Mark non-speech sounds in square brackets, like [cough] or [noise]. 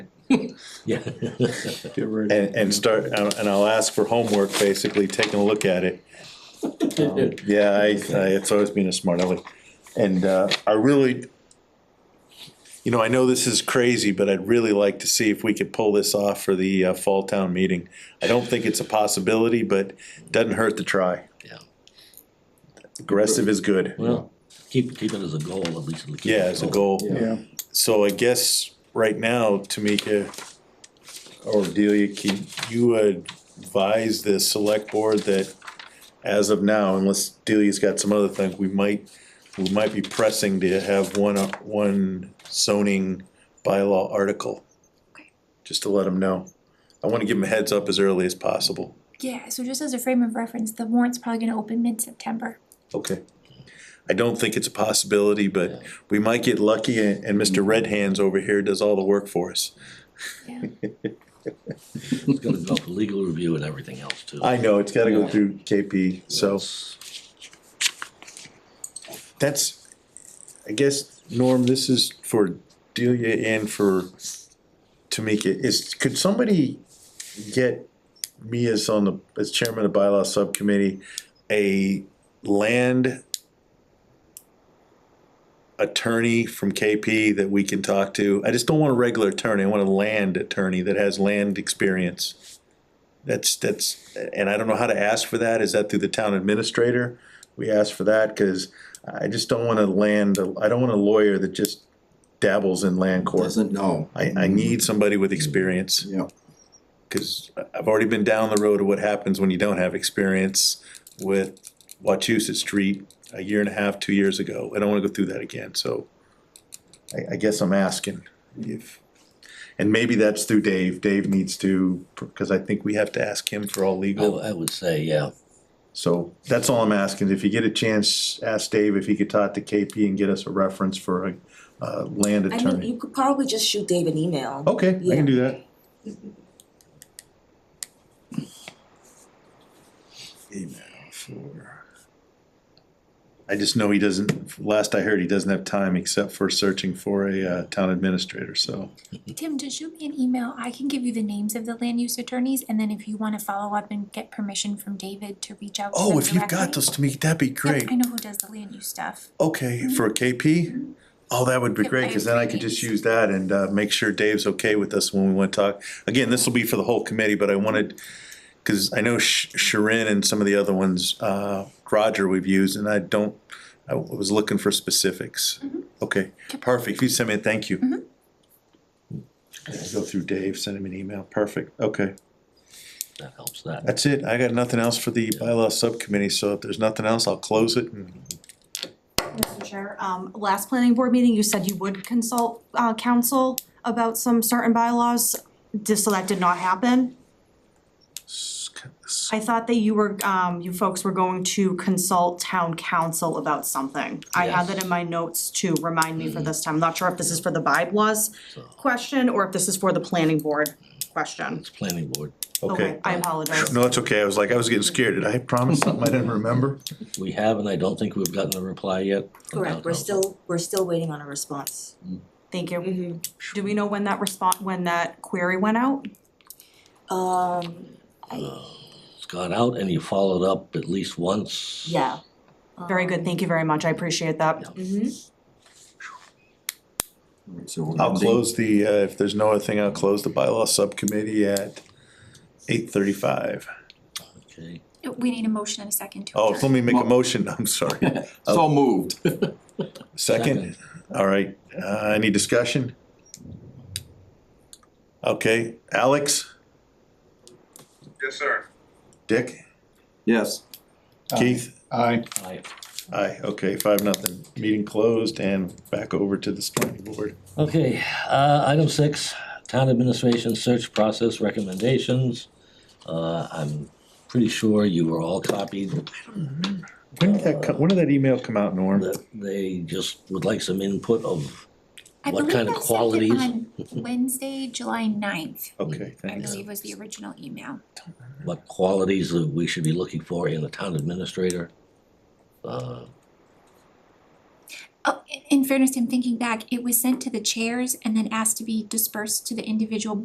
Yeah. Get ready. and, and start, and and I'll ask for homework, basically, taking a look at it. [laughs] Um, Yeah, I, I, it's always been a smart aleck, and, uh, I really, you know, I know this is crazy, but I'd really like to see if we could pull this off for the, uh, fall town meeting. I don't think it's a possibility, but doesn't hurt to try. Yeah. Aggressive is good, [laughs] Well, keep, keep it as a goal, at least. keep it yeah, as a goal. Yeah, So I guess right now, Tamika or Delia, can you advise the select board that as of now, unless Delia's got some other thing, we might, we might be pressing to have one, uh, one zoning bylaw article. Just to let them know. I wanna give them a heads up as early as possible. Yeah, so just as a frame of reference, the warrant's probably gonna open mid-September. Okay. I don't think it's a possibility, but we might get lucky and, and Mr. Red Hands over here does all the work for us. Yeah, It's gonna go for legal review and everything else too. I know, it's gotta go through KP, so That's- that's, I guess, Norm, this is for Delia and for Tamika, is, could somebody get me as on the, as chairman of bylaw subcommittee, a land attorney from KP that we can talk to? I just don't want a regular attorney, I want a land attorney that has land experience. That's, that's, and I don't know how to ask for that, is that through the town administrator? We ask for that, cause I just don't wanna land, I don't want a lawyer that just dabbles in land court. Doesn't know. I, I need somebody with experience, Yeah, cause I- I've already been down the road of what happens when you don't have experience with Wachusett Street a year and a half, two years ago, I don't wanna go through that again, so I, I guess I'm asking if, and maybe that's through Dave, Dave needs to, cause I think we have to ask him for all I, legal. I would say, yeah, So that's all I'm asking, if you get a chance, ask Dave if he could talk to KP and get us a reference for a, uh, land I mean, attorney. Oh, you could probably just shoot Dave an email. Okay, I Yeah. can do that. Email for. I just know he doesn't, last I heard, he doesn't have time except for searching for a, uh, town administrator, so. Tim, just shoot me an email, I can give you the names of the land use attorneys, and then if you wanna follow up and get permission from David to reach out to them Oh, if you've got directly. those to me, that'd be Yep, great. I know who does the land use stuff. Okay, for KP? Oh, that would be Yep, great, cause then I could just use that and uh make sure Dave's okay with us when we wanna talk. Again, this will be for the whole committee, but I wanted, cause I know Sh- Sharon and some of the other ones, uh Roger we've used, and I don't, I was looking for specifics. Okay, perfect, if you send me, a thank you. Mm-hmm. Go through Dave, send him an email, perfect, okay. that helps that. That's it, I got nothing else for the bylaw subcommittee, so if there's nothing else, I'll close it and Mr. Chair, um, last planning board meeting, you said you would consult, uh, council about some certain bylaws, just so that did not happen. I thought that you were, um, you folks were going to consult town council about something. I had that in my notes to remind me Mm-hmm. for this time, I'm not sure if this is for the bylaws question, or if this is for the planning board question. It's planning board. Okay. I apologize. No, it's okay. I was like, I was getting scared. Did I promise something I didn't remember? We have, and I don't think we've gotten a reply yet. from town Correct, we're council. still, we're still waiting on a response. Thank you. Mm-hmm. Do we know when that response, when that query went out? Um, I, uh, It's gone out and you followed up at least once. yeah. Um, Very good, thank you very much, I appreciate that. Mm-hmm. Alright, so we're I'll ending- close the, uh, if there's no other thing, I'll close the bylaw subcommittee at eight thirty-five. Okay. We need a motion and a second to Oh, adjourn. let me make a motion. I'm sorry. So moved. Second? All right. Uh, any discussion? Okay. Alex, Yes, sir. Dick, Yes. Keith? aye. Aye. Aye. Okay, five, nothing. Meeting closed and back over to the planning board. Okay, uh, item six, town administration search process recommendations. Uh, I'm pretty sure you were all copied, When did that, co- when did that email come out, Norm? that they just would like some input of I what believe kind of I sent qualities? it on Wednesday, July ninth, Okay, I thanks. believe was the original email. what qualities that we should be looking for in a town administrator. Uh, Oh, in- in fairness, I'm thinking back, it was sent to the chairs and then asked to be dispersed to the individual